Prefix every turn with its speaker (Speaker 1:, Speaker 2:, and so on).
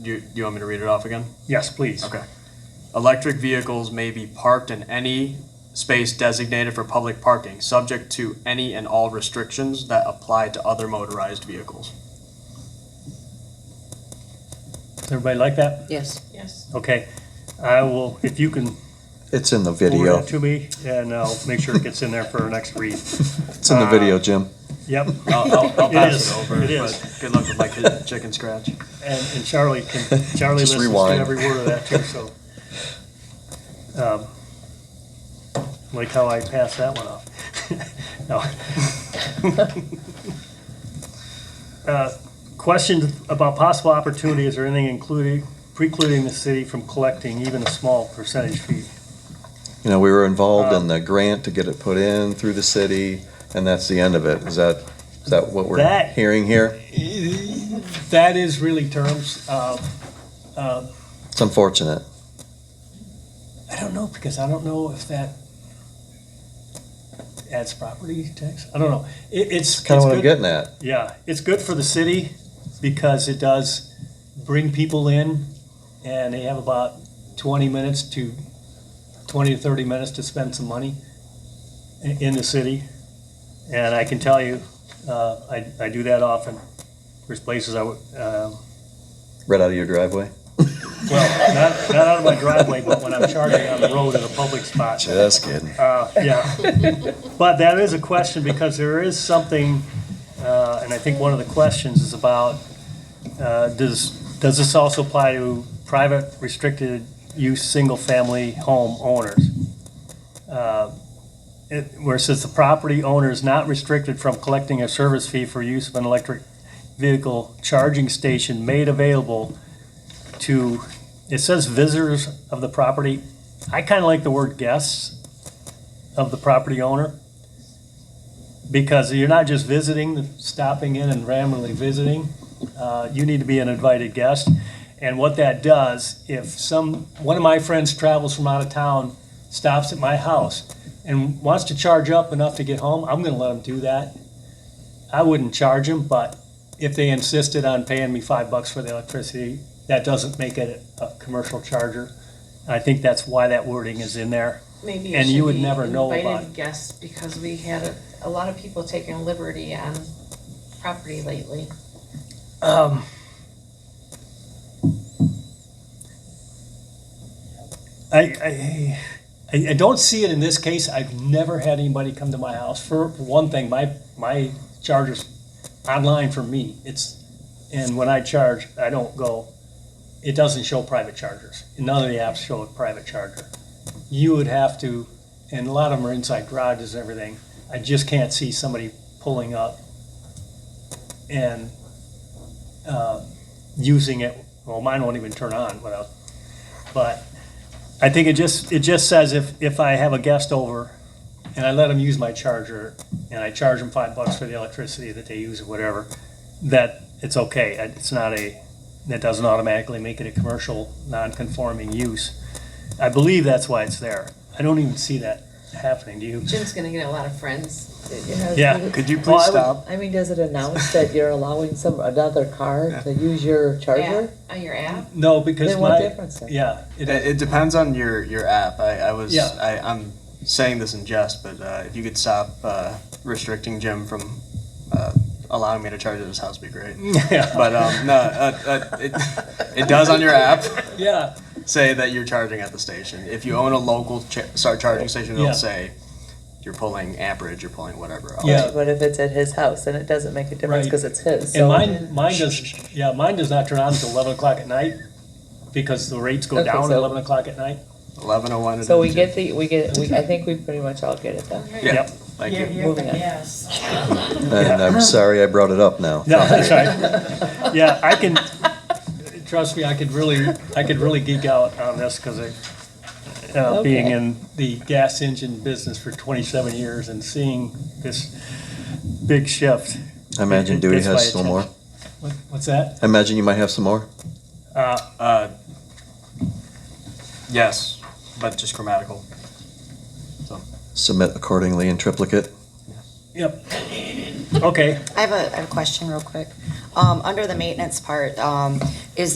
Speaker 1: Do you, do you want me to read it off again?
Speaker 2: Yes, please.
Speaker 1: Okay. Electric vehicles may be parked in any space designated for public parking, subject to any and all restrictions that apply to other motorized vehicles.
Speaker 2: Does everybody like that?
Speaker 3: Yes.
Speaker 4: Yes.
Speaker 2: Okay. I will, if you can
Speaker 5: It's in the
Speaker 2: forward
Speaker 5: video.
Speaker 2: that to me, and I'll make sure it gets in there for our next read.
Speaker 5: It's in the video, Jim.
Speaker 2: Yep.
Speaker 1: I'll, I'll, I'll
Speaker 2: It
Speaker 1: pass
Speaker 2: is.
Speaker 1: it over,
Speaker 2: It is.
Speaker 1: but good luck with my kid- chicken scratch.
Speaker 2: And, and Charlie can, Charlie
Speaker 5: Just
Speaker 2: listens to
Speaker 5: rewind.
Speaker 2: every word of that too, so. um, Like how I passed that one off. No. Uh, Questions about possible opportunities or anything including, precluding the city from collecting even a small percentage fee.
Speaker 5: You know, we were involved in the grant to get it put in through the city, and that's the end of it. Is that, is that what we're
Speaker 2: That-
Speaker 5: hearing here?
Speaker 2: That is really terms um, of, uh,
Speaker 5: It's unfortunate.
Speaker 2: I don't know, because I don't know if that adds property tax. I don't know. It, it's.
Speaker 5: Kind
Speaker 2: it's
Speaker 5: of what I'm
Speaker 2: good-
Speaker 5: getting at.
Speaker 2: Yeah, it's good for the city because it does bring people in and they have about twenty minutes to, twenty to thirty minutes to spend some money i- in the city. And I can tell you, uh, I, I do that often. There's places I would, um,
Speaker 5: Right out of your driveway.
Speaker 2: well, not, not out of my driveway, but when I'm charging on the road at a public spot.
Speaker 5: Just kidding.
Speaker 2: Uh, yeah. But that is a question because there is something, uh, and I think one of the questions is about, uh, does, does this also apply to private restricted use, single-family home owners? Uh, it- Where it says the property owner is not restricted from collecting a service fee for use of an electric vehicle charging station made available to, it says visitors of the property. I kind of like the word guests of the property owner. Because you're not just visiting, stopping in and randomly visiting, uh, you need to be an invited guest. And what that does, if some, one of my friends travels from out of town, stops at my house and wants to charge up enough to get home, I'm gonna let them do that. I wouldn't charge them, but if they insisted on paying me five bucks for the electricity, that doesn't make it a, a commercial charger. I think that's why that wording is in there.
Speaker 4: Maybe it
Speaker 2: And you
Speaker 4: should
Speaker 2: would
Speaker 4: be
Speaker 2: never know about
Speaker 4: invited
Speaker 2: it.
Speaker 4: guests because we had a, a lot of people taking liberty on property lately.
Speaker 2: Um, I, I, I, I don't see it in this case. I've never had anybody come to my house. For one thing, my, my charger's online for me. It's, and when I charge, I don't go, it doesn't show private chargers. None of the apps show a private charger. You would have to, and a lot of them are inside garages and everything. I just can't see somebody pulling up and uh, using it. Well, mine won't even turn on without. But I think it just it just says if if I have a guest over, and I let them use my charger, and I charge them five bucks for the electricity that they use or whatever, that it's okay. It's not a that doesn't automatically make it a commercial non-conforming use. I believe that's why it's there. I don't even see that happening. Do you?
Speaker 4: Jim's gonna get a lot of friends.
Speaker 2: Yeah.
Speaker 1: Could you
Speaker 2: Well,
Speaker 1: please
Speaker 2: I would-
Speaker 1: stop?
Speaker 3: I mean, does it announce that you're allowing some, another car to use your charger?
Speaker 4: On Oh, your app?
Speaker 2: No, because
Speaker 3: Then what
Speaker 2: my
Speaker 3: difference? then?
Speaker 2: yeah,
Speaker 1: It,
Speaker 2: it,
Speaker 1: it depends on your, your app. I, I was,
Speaker 2: Yeah.
Speaker 1: I, I'm saying this in jest, but, uh, if you could stop, uh, restricting Jim from, uh, allowing me to charge at his house, it'd be great.
Speaker 2: yeah,
Speaker 1: But, um, no, uh, uh, it, it does on your app.
Speaker 2: yeah.
Speaker 1: say that you're charging at the station. If you own a local cha- start charging station, it'll
Speaker 2: Yeah.
Speaker 1: say you're pulling amperage, you're pulling whatever. Else.
Speaker 2: Yeah.
Speaker 3: But if it's at his house, then it doesn't make a difference
Speaker 2: Right.
Speaker 3: because it's his,
Speaker 2: And
Speaker 3: so.
Speaker 2: mine, mine does, yeah, mine does not turn on until eleven o'clock at night, because the rates go
Speaker 3: Okay,
Speaker 2: down at
Speaker 3: so-
Speaker 2: eleven o'clock at night.
Speaker 1: eleven oh one.
Speaker 3: So we get the, we get, we, I think we pretty much all get it then.
Speaker 1: Yeah.
Speaker 2: Yep.
Speaker 1: Thank you.
Speaker 3: Moving on.
Speaker 4: Yes.
Speaker 5: And I'm sorry I brought it up now.
Speaker 2: No, that's right. Yeah, I can, trust me, I could really, I could really geek out on this, cause I, uh, being
Speaker 3: Okay.
Speaker 2: in the gas engine business for twenty-seven years and seeing this big shift.
Speaker 5: I imagine
Speaker 2: It
Speaker 5: Dewey
Speaker 2: gets my
Speaker 5: has some more.
Speaker 2: attention. What, what's that?
Speaker 5: I imagine you might have some more.
Speaker 2: Uh,
Speaker 1: Uh, yes, but just grammatical.
Speaker 5: Submit accordingly in triplicate.
Speaker 2: yep. Okay.
Speaker 6: I have a, I have a question real quick. Um, under the maintenance part, um, is